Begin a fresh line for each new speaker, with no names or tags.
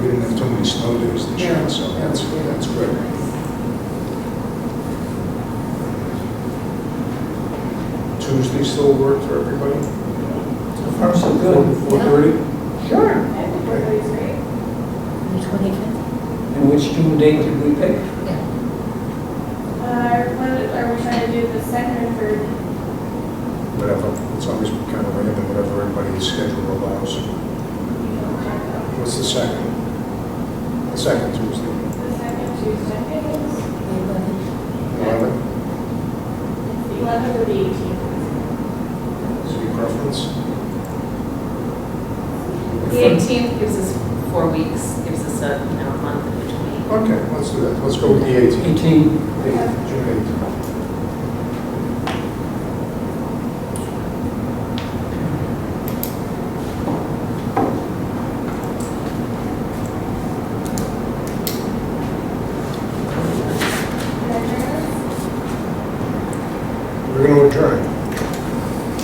many snow days this year,
Yeah,
so that's,
yeah.
that's good. Tuesday still work for everybody?
So far, so good.
Four thirty?
Sure.
Everybody's great.
The twenty-fifth?
And which June date did we pick?
Yeah.
Uh, what are we trying to do, the second or third?
Whatever, it's always kind of random, whatever everybody's schedule allows. What's the second? The second Tuesday?
The second Tuesday, I think it's
The eleventh.
Eleven?
the eleventh or the eighteenth.
Is your preference?
The eighteenth gives us four weeks, gives us a, you know, a month in between.
Okay, let's do that. Let's go with the eighteenth.
18,
June
Is that yours?
8th. We're going to adjourn.